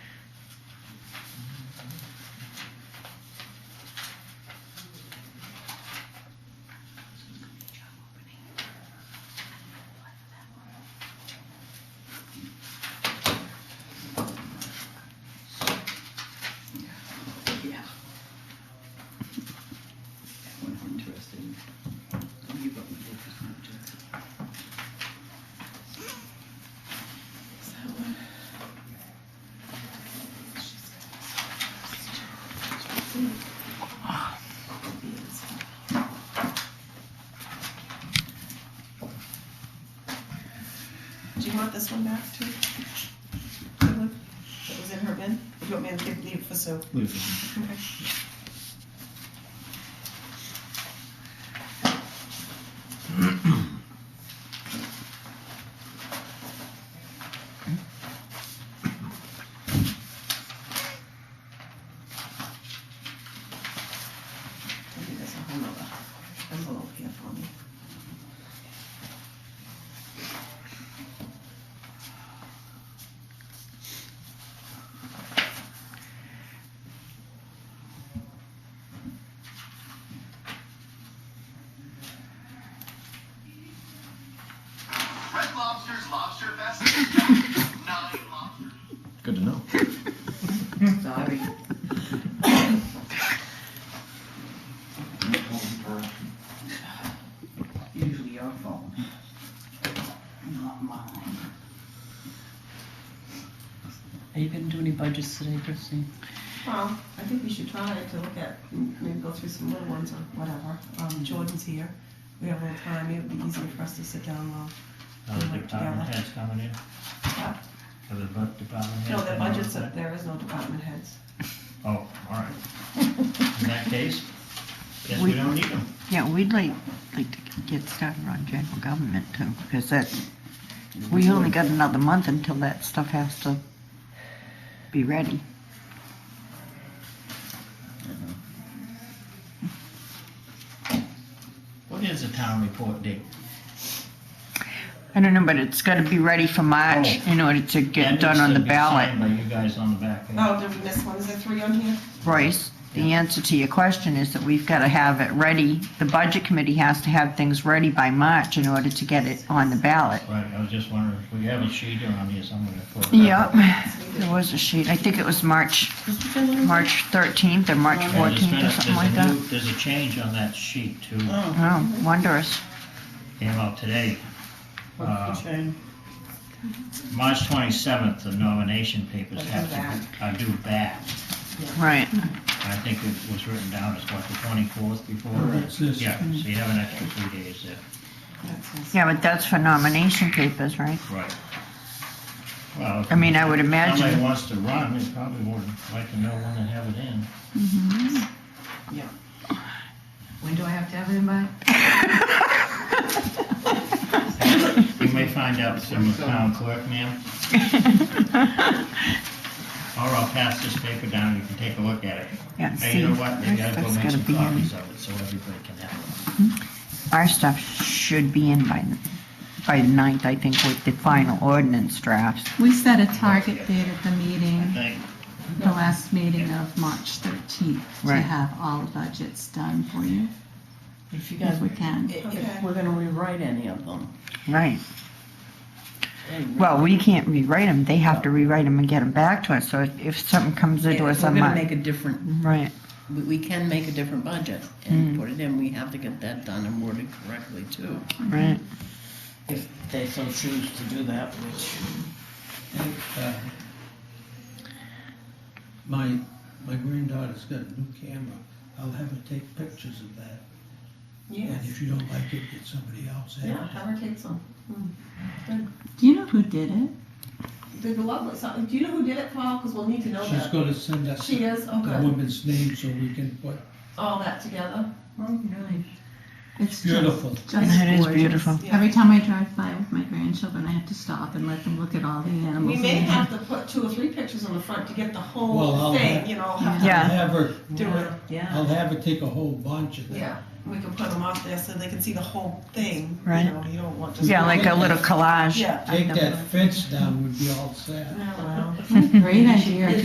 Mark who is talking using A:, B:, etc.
A: Do you want this one back too? The one That was in her bin? If you want me to take- leave it for Sue?
B: Leave
A: Okay. Maybe there's a whole nother envelope here for me.
C: Red Lobster's Lobster Fest is back. Nine lobsters.
B: it. Good to know.
A: Sorry.
D: Usually your fault, not mine.
E: Are you gonna do any budgets today, Christine?
A: Well, I think we should try to look at, maybe go through some little ones or whatever. Um, Jordan's here. We have a little time. It would be easier for us to sit down and
F: Are the Uh, department heads coming in?
A: Yeah.
F: Are the bu- department heads?
A: No, the
F: coming in?
A: budget's up, there is no department heads.
F: Oh, all right. In that case, guess we
G: We-
F: don't need them.
G: Yeah, we'd like, like to get started on general government too, because that's, we only got another month until that stuff has to be ready.
F: What is the town report date?
G: I don't know, but it's gotta be ready for March
F: Oh.
G: in order to
F: That
G: get done on
F: needs
G: the
F: to be signed
G: ballot.
F: By you guys on the back. end.
A: Oh, did we miss one? Is there three on here?
G: Bryce, the answer to your question is that we've gotta have it ready. The budget committee has to have things ready by March in order to get it on the ballot.
F: Right, I was just wondering if we have a sheet around here somewhere to put. it.
G: Yep, there was a sheet. I think it was March, March thirteenth or March
F: Yeah, there's
G: fourteenth
F: been a-
G: or something
F: there's
G: like
F: a
G: that.
F: new- There's a change on that sheet too,
D: Oh,
G: Oh, wondrous.
F: came out today. Uh,
D: what's the change?
F: March twenty-seventh, the nomination papers
A: Are due
F: have to,
A: back.
F: are due back.
G: Right.
F: I think it was written down as what, the twenty-fourth before? Yeah, so you have an extra three days there.
G: Yeah, but that's for nomination papers, right?
F: Right. Well. if
G: I mean, I would
F: Somebody
G: imagine.
F: wants to run, they probably would like to know when they have it in.
D: When do I have to have it in by?
F: You may find out from the town clerk, ma'am, or I'll pass this paper down, and you can take a look at it.
G: Yeah,
F: Hey,
G: see,
F: you know what,
G: our
F: maybe I go
G: stuff's
F: make
G: gotta
F: some
G: be in,
F: copies of it, so everybody can have
G: our stuff should be in by, by the ninth, I think, with the final ordinance drafts.
H: We set a target date at the meeting,
F: it. Thank,
H: the last meeting of March 13th, to
G: Right.
H: have all the budgets done for you,
D: If you guys,
H: if we can.
D: if we're gonna rewrite any of them.
G: Right.
D: hey,
G: Well, we can't rewrite them, they have to rewrite them and get them back to us, so if- if something comes
D: If
G: into
D: we're
G: us on
D: gonna
G: March.
D: make a different,
G: Right,
D: we, we can make a different budget and put it in, we have to get that done and worded correctly too.
G: right.
D: If they so choose to do that, which.
I: Uh, My, my granddaughter's got a new camera. I'll have her take pictures of that. And
A: Yes.
I: if you don't like it, get somebody else in.
A: Yeah, have her take some.
H: Do you know who did it?
A: Did the lovely, so, do you know who did it, Paul? Because we'll need to know
I: She's Mm-hmm.
A: that.
I: gonna send us
A: She
I: the
A: is, oh
I: the
A: good.
I: woman's name so we can put,
A: All that together.
H: It's just,
I: beautiful.
H: just
G: It is
H: gorgeous.
G: beautiful.
A: Yeah.
H: Every time I drive by with my grandchildren, I have to stop and let them look at all the
A: We
H: animals.
A: may
H: they
A: have to put two or three pictures on the front to get the
I: Well,
A: whole
I: I'll
A: thing,
I: have-
A: you know, have
I: I'll
G: Yeah.
A: to
I: have her,
A: do it.
I: I'll have her take a whole bunch of that.
A: Yeah, we can put them up there so they can see the whole thing.
G: Right.
A: You know, you don't want just.
G: Yeah, like a little collage.
A: Yeah.
I: Take that fence down, we'd be all set.
A: Yeah, well.
H: Great idea.